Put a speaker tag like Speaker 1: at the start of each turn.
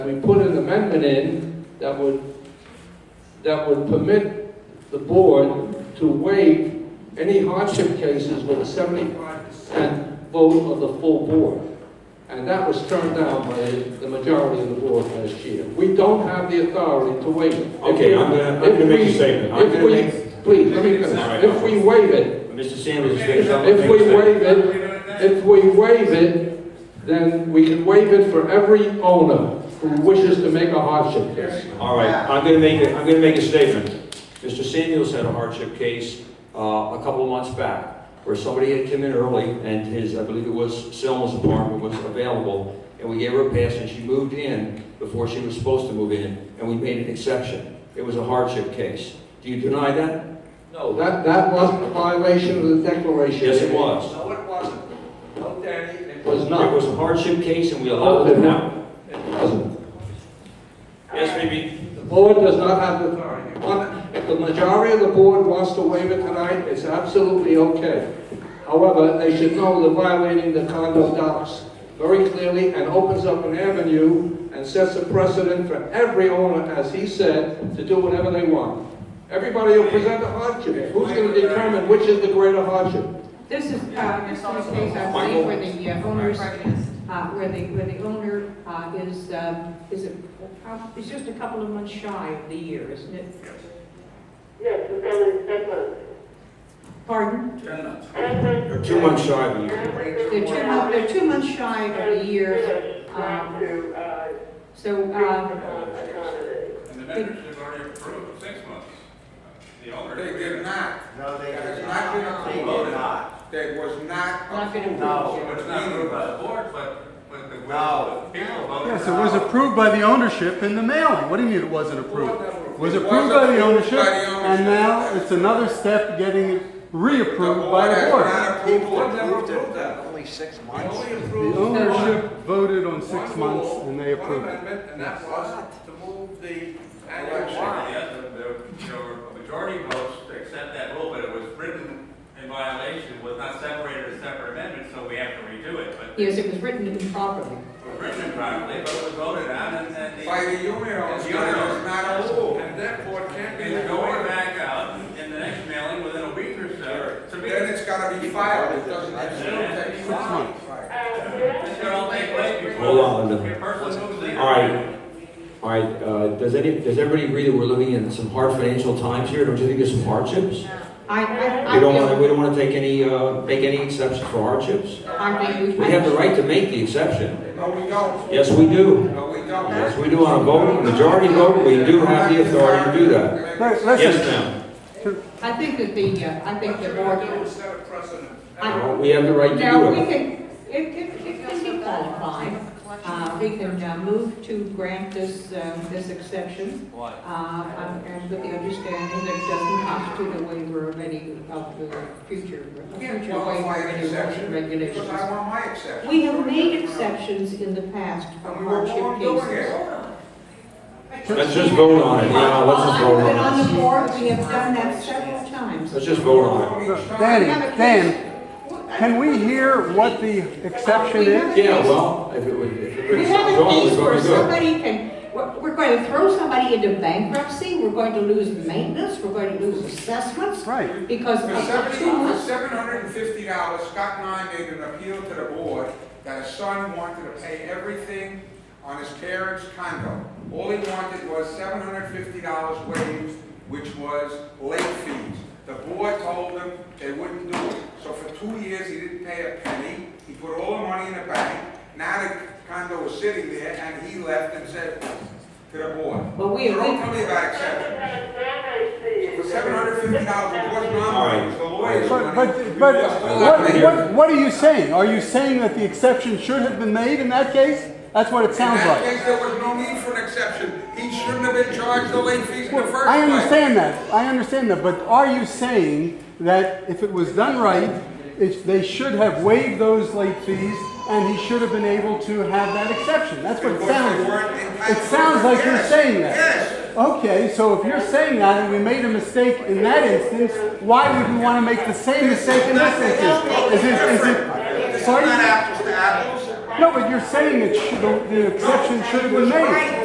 Speaker 1: We put an amendment in that would, that would permit the board to waive any hardship cases with a seventy-five percent vote of the full board. And that was turned down by the majority of the board last year. We don't have the authority to waive it. If
Speaker 2: Okay,
Speaker 1: we-
Speaker 2: I'm gonna- I'm gonna
Speaker 1: if
Speaker 2: make a
Speaker 1: we-
Speaker 2: statement. I'm
Speaker 1: If
Speaker 2: gonna
Speaker 1: we,
Speaker 2: make-
Speaker 1: please, let me
Speaker 2: All
Speaker 1: finish.
Speaker 2: right.
Speaker 1: If we waive it,
Speaker 2: Mr. Sanders is going to come up
Speaker 1: if
Speaker 2: and
Speaker 1: we
Speaker 2: make a statement.
Speaker 1: waive it, if we waive it, then we can waive it for every owner who wishes to make a hardship case.
Speaker 2: All right, I'm going to make, a- I'm going to make a statement. Mr. Samuels had a hardship case uh, a couple of months back where somebody had come in early and his, I believe it was Selma's apartment was available and we gave her a pass and she moved in before she was supposed to move in and we made an exception. It was a hardship case. Do you deny that?
Speaker 1: No, that, that wasn't a violation of the declaration.
Speaker 2: Yes, it was.
Speaker 3: No, it wasn't. No, Danny, it
Speaker 1: It
Speaker 3: was.
Speaker 1: was
Speaker 2: It
Speaker 1: not. Oh,
Speaker 2: was a hardship case and we allowed it now.
Speaker 1: It wasn't.
Speaker 2: Yes, maybe.
Speaker 1: The board does not have the authority. One- If the majority of the board wants to waive it tonight, it's absolutely okay. However, they should know they're violating the condo docs very clearly and opens up an avenue and sets a precedent for every owner, as he said, to do whatever they want. Everybody will present a hardship. Who's going to determine which is the greater hardship?
Speaker 4: This is, uh, this is a case, I
Speaker 2: Michael.
Speaker 4: believe, where the uh, owners, uh, where the, where the owner, uh, is, um, is, a- is just a couple of months shy of the year, isn't it?
Speaker 5: Yes, it's only ten months.
Speaker 4: Pardon?
Speaker 2: They're two months shy of a year.
Speaker 4: They're two, mo- they're two months shy of the year, um,
Speaker 5: Trying to, uh,
Speaker 4: so,
Speaker 5: uh,
Speaker 4: uh,
Speaker 5: accommodate.
Speaker 6: And the members have already approved six months. The owner.
Speaker 7: They did not.
Speaker 3: No, they
Speaker 7: That
Speaker 3: did
Speaker 7: has not been
Speaker 3: not. They did
Speaker 7: approved.
Speaker 3: not.
Speaker 7: There was not.
Speaker 4: Not been approved.
Speaker 3: No.
Speaker 6: But it's not approved by the board, but, but the
Speaker 3: No.
Speaker 6: will of the people voted.
Speaker 8: Yes, it was approved by the ownership in the mailing. What do you mean it wasn't approved? It was approved by the ownership, and now it's another step getting it reapproved by the board.
Speaker 7: The
Speaker 3: The
Speaker 7: board
Speaker 3: board never
Speaker 7: has not approved it.
Speaker 3: approved that, only six months.
Speaker 8: The ownership voted on six months, and they approved it.
Speaker 3: And that was to move the annual wine.
Speaker 6: Yes, the, the, there were majority votes to accept that rule, but it was written in violation, was not separated as separate amendments, so we have to redo it, but it
Speaker 4: yes, it was written improperly.
Speaker 6: was written improperly, but it was voted on, and then the.
Speaker 7: By the union,
Speaker 6: And the
Speaker 7: it was
Speaker 6: union-
Speaker 7: not approved.
Speaker 3: And therefore, it can't be.
Speaker 6: It's going back out in the next mailing within a week or so. So we-
Speaker 7: Then it's gotta be filed, it doesn't, it's not
Speaker 6: Six
Speaker 7: filed.
Speaker 6: This should all take place before.
Speaker 2: Hold on, Linda.
Speaker 6: the person moves in.
Speaker 2: All right, all right, uh, does any, does everybody agree that we're living in some hard financial times here? Don't you think there's some hardships?
Speaker 4: I, I, I
Speaker 2: We don't want to,
Speaker 4: feel,
Speaker 2: we don't want to take any, uh, make any exceptions for hardships.
Speaker 4: I mean, we.
Speaker 2: We have the right to make the exception.
Speaker 7: No, we don't.
Speaker 2: Yes, we do.
Speaker 7: No, we don't.
Speaker 2: Yes, we do on a vote, majority vote, we do have the authority to do that.
Speaker 8: But
Speaker 2: Yes,
Speaker 8: Listen,
Speaker 2: ma'am.
Speaker 4: I think that the, uh, I think the board.
Speaker 3: set a precedent.
Speaker 4: I-
Speaker 2: Uh, We have the right to
Speaker 4: Now, we
Speaker 2: do it.
Speaker 4: can, it, it, it can be qualified. Uh, we can uh, move to grant this, um, this exception. Why? Uh, um, and with the understanding that it doesn't constitute a waiver of any of the future,
Speaker 7: Can't
Speaker 4: future
Speaker 7: qualify
Speaker 4: waiver of
Speaker 7: an
Speaker 4: any rules and
Speaker 7: exception, because I
Speaker 4: regulations.
Speaker 7: want my exception.
Speaker 4: We have made exceptions in the past for
Speaker 7: And we were
Speaker 4: hardship
Speaker 7: wrong doing
Speaker 4: cases.
Speaker 7: it.
Speaker 2: Let's just vote on it, yeah, let's just vote on
Speaker 4: Well, I've
Speaker 2: it.
Speaker 4: been on the board, we have done that several times.
Speaker 2: Let's just vote on it.
Speaker 8: Danny, Dan, can we hear what the exception is?
Speaker 2: Yeah, well, if it would, if it
Speaker 4: We
Speaker 2: would,
Speaker 4: have a
Speaker 2: vote,
Speaker 4: case
Speaker 2: we'd
Speaker 4: where
Speaker 2: probably go.
Speaker 4: somebody can, we're we're going to throw somebody into bankruptcy, we're going to lose maintenance, we're going to lose assessments.
Speaker 8: Right.
Speaker 4: Because
Speaker 7: For
Speaker 4: of the
Speaker 7: seventy,
Speaker 4: two
Speaker 7: for
Speaker 4: months.
Speaker 7: seven hundred and fifty dollars, Scott and I made an appeal to the board that his son wanted to pay everything on his parents' condo. All he wanted was seven hundred and fifty dollars waived, which was late fees. The board told him they wouldn't do it. So for two years, he didn't pay a penny. He put all the money in the bank. Now the condo was sitting there, and he left and said to the board,
Speaker 4: But we,
Speaker 7: don't
Speaker 4: we,
Speaker 7: tell me about exceptions. For seven hundred and fifty dollars, it wasn't
Speaker 2: All
Speaker 7: on,
Speaker 2: right.
Speaker 7: it was the lawyer's
Speaker 8: But,
Speaker 7: money.
Speaker 8: but, but what, what, what are you saying? Are you saying that the exception should have been made in that case? That's what it
Speaker 7: In
Speaker 8: sounds
Speaker 7: that
Speaker 8: like.
Speaker 7: case, there was no need for an exception. He shouldn't have been charged the late fees in the first place.
Speaker 8: I understand that, I understand that, but are you saying that if it was done right, it, they should have waived those late fees and he should have been able to have that exception? That's what it
Speaker 7: Because
Speaker 8: sounds
Speaker 7: they weren't
Speaker 8: like. It
Speaker 7: entitled
Speaker 8: sounds
Speaker 7: to it.
Speaker 8: like you're
Speaker 7: Yes,
Speaker 8: saying that.
Speaker 7: yes.
Speaker 8: Okay, so if you're saying that and we made a mistake in that instance, why would we want to make the same mistake in this instance? Is it, is it,
Speaker 7: It's
Speaker 8: pardon?
Speaker 7: not apples to apples.
Speaker 8: No, but you're saying it should, the the exception should have been made.